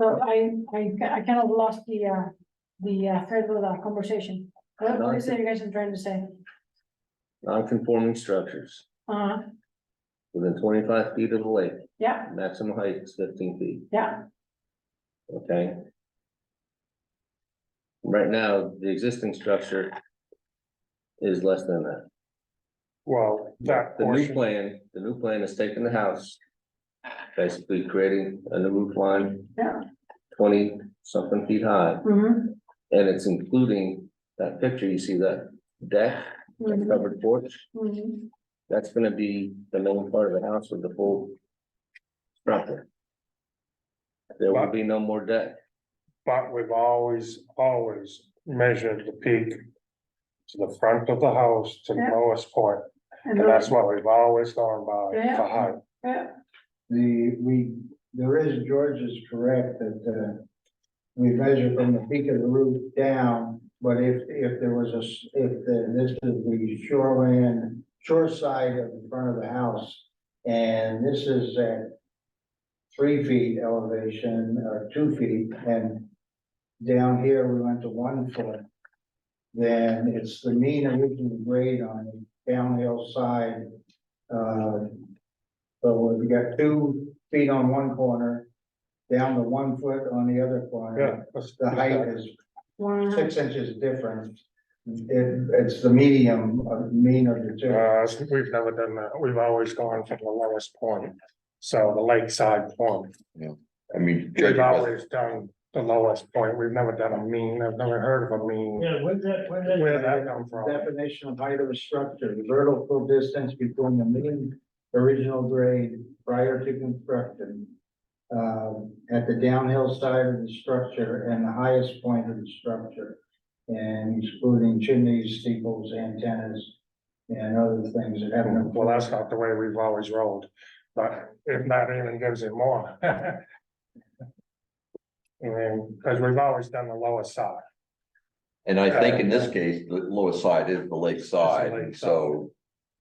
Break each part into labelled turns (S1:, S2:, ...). S1: So I, I, I kind of lost the, uh, the uh, thread of the conversation. What what is it you guys are trying to say?
S2: Non-conforming structures
S1: Uh,
S2: within twenty-five feet of the lake,
S1: yeah,
S2: maximum height is fifteen feet,
S1: yeah,
S2: okay? Right now, the existing structure is less than that.
S3: Well, that
S2: The new
S3: portion,
S2: plan, the new plan is taking the house, basically creating a new roof line,
S1: yeah.
S2: twenty something feet high,
S1: mhm,
S2: and it's including that picture, you see that deck, that
S1: mhm,
S2: covered porch,
S1: mhm.
S2: that's gonna be the main part of the house with the full structure. There will be no more deck.
S3: but we've always, always measured the peak. To the front of the house to the
S1: Yeah.
S3: lowest point,
S1: And
S3: and that's what we've always gone by
S1: Yeah.
S3: for height.
S1: yeah,
S4: The, we, there is, George is correct that, uh, we measure from the peak of the roof down, but if, if there was a, s- if the- this is the shoreline, shore side of the front of the house, and this is at three feet elevation or two feet, and down here we went to one foot, then it's the mean original grade on the downhill side, uh, so we got two feet on one corner, down to one foot on the other
S3: Yeah.
S4: corner.
S3: that's-
S4: The height is
S1: one,
S4: six inches different. It, it's the medium of mean of the two.
S3: Uh, we've never done that, we've always gone from the lowest point, so the lakeside point,
S5: I mean, judging
S3: we've
S5: by,
S3: always done the lowest point, we've never done a mean, I've never heard of a mean.
S4: Yeah, where'd that, where'd
S3: Where'd that come from?
S4: Definition of height of a structure, the vertical distance between the mean original grade prior to construction. um, at the downhill side of the structure and the highest point of the structure. And excluding chimneys, steeples, antennas, and other things that have no.
S3: Well, that's not the way we've always rolled, but if that even gives it more. And, because we've always done the lowest side.
S5: and I think in this case, the lowest side is the lake side,
S3: lakeside.
S5: so.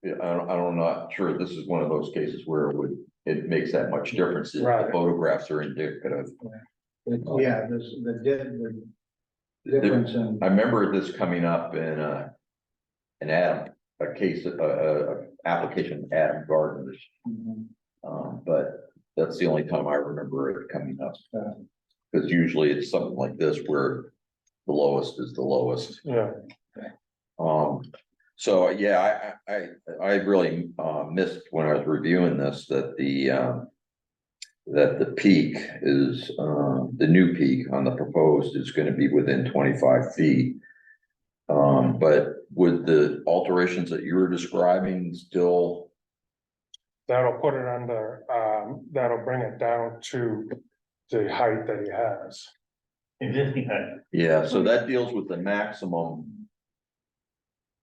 S5: yeah, I don't, I don't, not sure this is one of those cases where it would, it makes that much difference, if the
S3: Right.
S5: photographs are indicative.
S4: Yeah, this, the, di- the
S5: There-
S4: difference in.
S5: I remember this coming up in uh an Adam, a case, a, a, a application, of Adam Gardner's, um, but that's the only time I remember it coming up.
S4: Yeah.
S5: Cause usually it's something like this where the lowest is the lowest.
S3: Yeah,
S5: Um, so, yeah, I, I, I, I really, uh, missed when I was reviewing this, that the, um. That the peak is, uh, the new peak on the proposed is gonna be within twenty-five feet. Um, but would the alterations that you were describing still,
S3: that'll put it under, um, that'll bring it down to the height that he has.
S6: Existing height,
S5: yeah, so that deals with the maximum.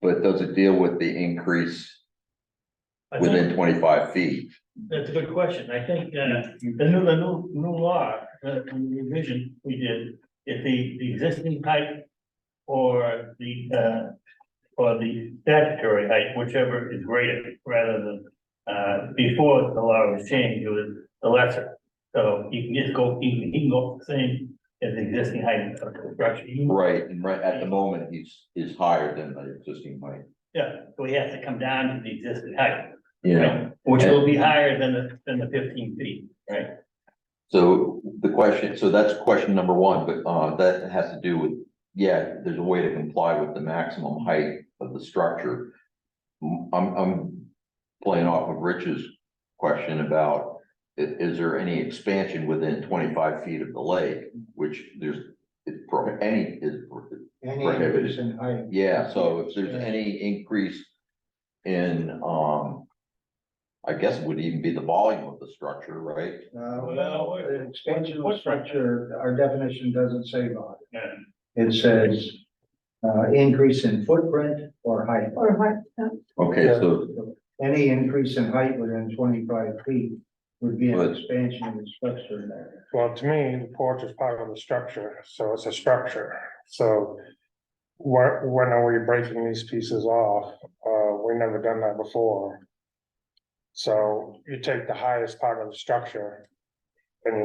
S5: But does it deal with the increase
S6: I
S5: within
S6: think,
S5: twenty-five feet?
S6: that's a good question, I think, uh, the new, the new, new law, uh, the revision we did, if the, the existing height. Or the, uh, or the statutory height, whichever is greater, rather than, uh, before the law was changed, it was the lesser. So you can just go, you can, you can go same as the existing height of the structure. You-
S5: Right, and right at the moment, he's, is higher than the existing height.
S6: Yeah, so he has to come down to the existing height,
S5: Yeah.
S6: which will be higher than the, than the fifteen feet, right?
S5: So the question, so that's question number one, but uh that has to do with, yeah, there's a way to comply with the maximum height of the structure. Mm, I'm I'm playing off of Rich's question about i- is there any expansion within twenty-five feet of the lake, which there's it's pro- any is
S4: Any
S5: prohibited.
S4: increase in height.
S5: yeah, so if there's any increase in, um. I guess it would even be the volume of the structure, right?
S4: Uh,
S6: Well,
S4: well,
S6: what-
S4: the expansion of
S6: what-
S4: the structure, our definition doesn't say about
S6: Yeah.
S4: it. It says, uh, increase in footprint or height.
S1: or what, uh,
S5: Okay,
S3: Yeah.
S5: so
S4: Any increase in height within twenty-five feet would be an
S5: But-
S4: expansion of the structure in there.
S3: Well, to me, the porch is part of the structure, so it's a structure, so. What, when are we breaking these pieces off? Uh, we never done that before. So you take the highest part of the structure. And you